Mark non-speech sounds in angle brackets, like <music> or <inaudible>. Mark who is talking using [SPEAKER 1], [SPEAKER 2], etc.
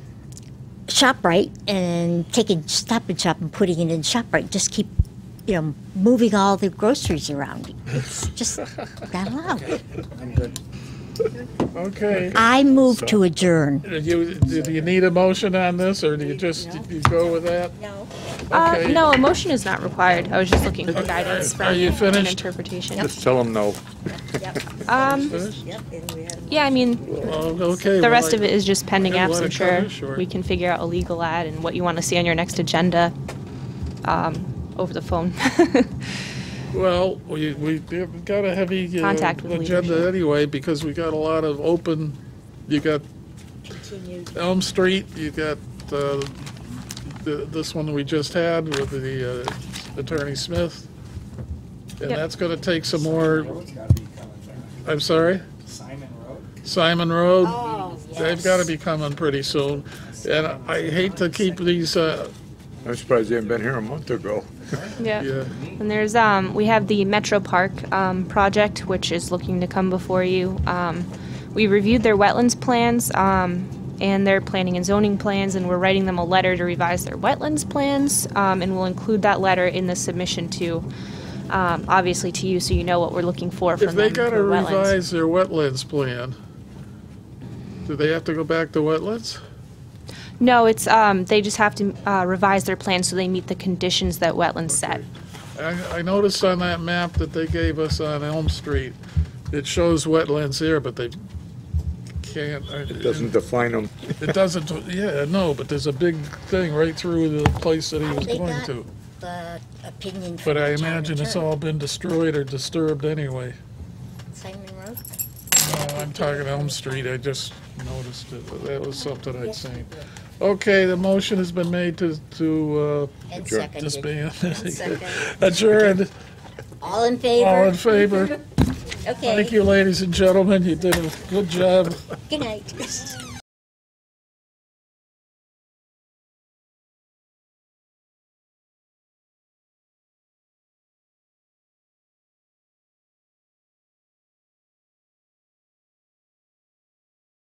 [SPEAKER 1] ShopRite and taking Stop and Shop and putting it in ShopRite. Just keep, you know, moving all the groceries around. It's just not allowed.
[SPEAKER 2] Okay.
[SPEAKER 1] I move to adjourn.
[SPEAKER 2] Do you, do you need a motion on this, or do you just, you go with that?
[SPEAKER 3] No.
[SPEAKER 4] Uh,
[SPEAKER 2] Okay.
[SPEAKER 4] no, a motion is not required. I was just looking for guidance
[SPEAKER 2] Are
[SPEAKER 4] from
[SPEAKER 2] you
[SPEAKER 4] an
[SPEAKER 2] finished?
[SPEAKER 4] interpretation.
[SPEAKER 5] Just tell them no.
[SPEAKER 4] Um,
[SPEAKER 2] Finished?
[SPEAKER 3] Yep, and we had a
[SPEAKER 4] yeah, I mean,
[SPEAKER 2] Well, Okay.
[SPEAKER 4] the
[SPEAKER 2] well,
[SPEAKER 4] rest
[SPEAKER 2] I-
[SPEAKER 4] of it is just pending
[SPEAKER 2] Yeah,
[SPEAKER 4] apps,
[SPEAKER 2] let
[SPEAKER 4] I'm
[SPEAKER 2] it cut
[SPEAKER 4] sure.
[SPEAKER 2] it short.
[SPEAKER 4] We can figure out a legal ad and what you want to see on your next agenda, um, over the phone. <laughs>
[SPEAKER 2] Well, we, we've got a heavy uh,
[SPEAKER 4] Contact with
[SPEAKER 2] agenda
[SPEAKER 4] leadership.
[SPEAKER 2] anyway, because we got a lot of open, you got
[SPEAKER 3] continued
[SPEAKER 2] Elm Street, you got uh, th- this one we just had with the uh, Attorney Smith. And
[SPEAKER 4] Yep.
[SPEAKER 2] that's going to take some more, I'm sorry,
[SPEAKER 6] Simon Road.
[SPEAKER 2] Simon Road.
[SPEAKER 4] Oh,
[SPEAKER 2] They've got to be coming pretty soon. And I hate to keep these, uh,
[SPEAKER 5] I'm surprised they haven't been here a month ago.
[SPEAKER 4] Yeah.
[SPEAKER 2] yeah,
[SPEAKER 4] And there's, um, we have the Metro Park, um, project, which is looking to come before you. Um, we reviewed their wetlands plans, um, and their planning and zoning plans, and we're writing them a letter to revise their wetlands plans, um, and we'll include that letter in the submission to, um, obviously to you, so you know what we're looking for from
[SPEAKER 2] If they
[SPEAKER 4] them for
[SPEAKER 2] gotta
[SPEAKER 4] wetlands.
[SPEAKER 2] revise their wetlands plan, do they have to go back to wetlands?
[SPEAKER 4] No, it's, um, they just have to, uh, revise their plans so they meet the conditions that wetlands set.
[SPEAKER 2] I, I noticed on that map that they gave us on Elm Street, it shows wetlands here, but they can't.
[SPEAKER 5] It doesn't define them.
[SPEAKER 2] It doesn't, yeah, no, but there's a big thing right through the place that he was
[SPEAKER 1] They
[SPEAKER 2] going
[SPEAKER 1] got-
[SPEAKER 2] to.
[SPEAKER 1] The opinion. from
[SPEAKER 2] But I
[SPEAKER 1] the town
[SPEAKER 2] imagine it's
[SPEAKER 1] attorney.
[SPEAKER 2] all been destroyed or disturbed anyway.
[SPEAKER 1] Simon Road?
[SPEAKER 2] Oh, I'm talking Elm Street, I just noticed it, that was something I'd seen. Okay, the motion has been made to, to,
[SPEAKER 1] And
[SPEAKER 5] Sure.
[SPEAKER 2] uh,
[SPEAKER 1] seconded.
[SPEAKER 2] disband.
[SPEAKER 1] Second.
[SPEAKER 2] <laughs> Adjourned.
[SPEAKER 1] All in
[SPEAKER 2] All in
[SPEAKER 1] favor?
[SPEAKER 2] favor?
[SPEAKER 1] Okay.
[SPEAKER 2] Thank you, ladies and gentlemen. You did a good job. <laughs>
[SPEAKER 1] Good night.